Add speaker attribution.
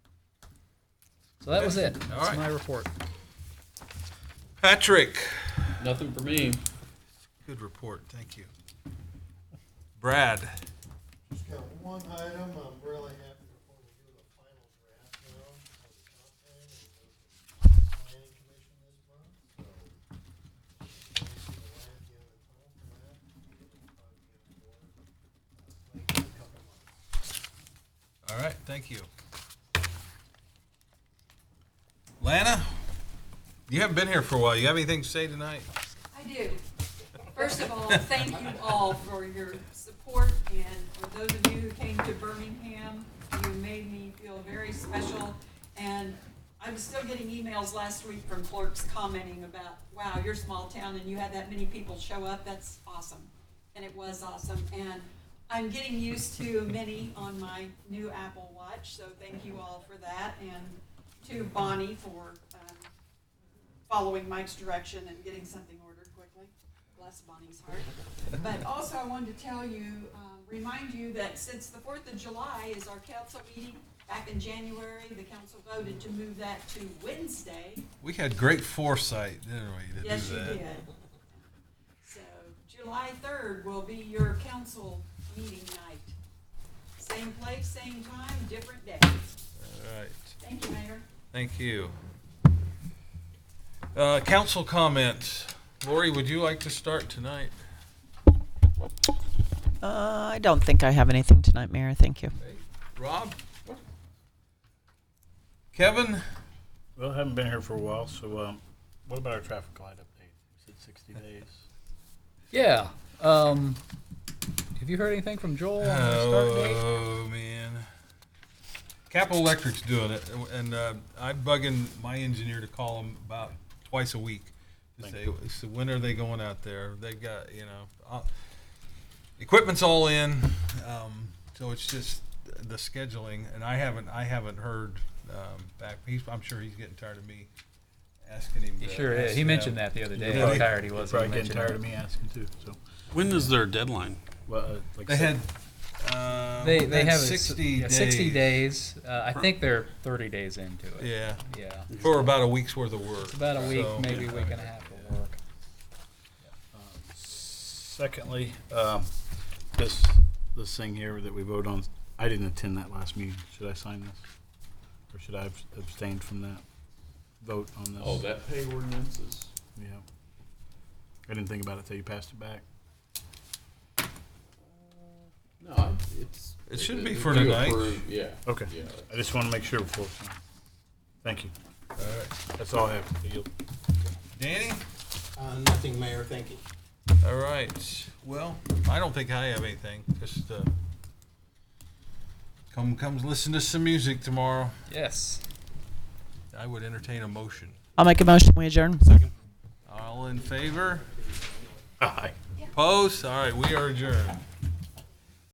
Speaker 1: So that was it.
Speaker 2: All
Speaker 1: That's
Speaker 2: right.
Speaker 1: my report.
Speaker 2: Patrick.
Speaker 3: Nothing for me.
Speaker 2: Good report. Thank you. Brad.
Speaker 4: Just got one item, I'm really happy before we do the final draft now, for the comp plan, and go to the planning commission this month, so. we'll see the land deal at home for that, and we'll probably get on board, uh, like, in a couple months.
Speaker 2: All right. Thank you. Lana, you haven't been here for a while. You have anything to say tonight?
Speaker 5: I do. First of all, thank you all for your support, and for those of you who came to Birmingham, you made me feel very special. And I'm still getting emails last week from clerks commenting about, wow, you're a small town and you had that many people show up, that's awesome. And it was awesome, and I'm getting used to many on my new Apple Watch, so thank you all for that, and to Bonnie for, um, following Mike's direction and getting something ordered quickly. Bless Bonnie's heart. But also, I wanted to tell you, um, remind you that since the Fourth of July is our council meeting, back in January, the council voted to move that to Wednesday.
Speaker 2: We had great foresight, didn't we? To
Speaker 5: Yes,
Speaker 2: do
Speaker 5: you
Speaker 2: that.
Speaker 5: did. So July third will be your council meeting night. Same place, same time, different day.
Speaker 2: All right.
Speaker 5: Thank you, Mayor.
Speaker 2: Thank you. Uh, council comments. Lori, would you like to start tonight?
Speaker 6: Uh, I don't think I have anything tonight, Mayor. Thank you.
Speaker 2: Rob? Kevin?
Speaker 7: Well, I haven't been here for a while, so um, what about our traffic light update? Is it 60 days?
Speaker 1: Yeah. Um, have you heard anything from Joel on the start date?
Speaker 2: Oh, man. Capital Electric's doing it, and uh, I'm bugging my engineer to call him about twice a week to say, so when are they going out there? They've got, you know, uh, equipment's all in, um, so it's just the scheduling, and I haven't, I haven't heard um, back. He's, I'm sure he's getting tired of me asking him.
Speaker 1: He
Speaker 2: to
Speaker 1: sure is.
Speaker 2: ask
Speaker 1: He
Speaker 2: him.
Speaker 1: mentioned that the other day.
Speaker 2: Yeah,
Speaker 1: How
Speaker 2: they-
Speaker 1: tired he
Speaker 7: You're
Speaker 1: was. when
Speaker 7: probably
Speaker 1: he mentioned
Speaker 7: getting tired
Speaker 1: it.
Speaker 7: of me asking too, so.
Speaker 3: When is their deadline?
Speaker 7: Well, uh, like
Speaker 2: They
Speaker 7: I
Speaker 2: had.
Speaker 7: said,
Speaker 2: um,
Speaker 1: They they
Speaker 2: had
Speaker 1: have a s-
Speaker 2: 60
Speaker 1: yeah,
Speaker 2: days.
Speaker 1: sixty days. Uh, I think they're thirty days into it.
Speaker 2: Yeah,
Speaker 1: Yeah.
Speaker 2: for about a week's worth of work.
Speaker 1: It's about a week,
Speaker 2: So-
Speaker 1: maybe a week and a half of work.
Speaker 7: secondly, um, this, this thing here that we vote on, I didn't attend that last meeting. Should I sign this? Or should I have abstained from that vote on this?
Speaker 3: Oh, that pay ordinance is.
Speaker 7: Yeah. I didn't think about it till you passed it back.
Speaker 3: No, I- it's.
Speaker 2: It should be for
Speaker 3: you
Speaker 2: tonight.
Speaker 3: approve- Yeah.
Speaker 7: Okay.
Speaker 3: Yeah.
Speaker 7: I just want to make sure before. it's signed. Thank you.
Speaker 2: All right.
Speaker 7: That's all I have. You'll-
Speaker 2: Danny?
Speaker 8: Uh, nothing, Mayor, thank you.
Speaker 2: All right. Well, I don't think I have anything. Just uh, come, come listen to some music tomorrow.
Speaker 1: Yes.
Speaker 2: I would entertain a motion.
Speaker 6: I'll make a motion. We adjourn.
Speaker 2: All in favor?
Speaker 7: Aye.
Speaker 2: Opposed? All right, we are adjourned.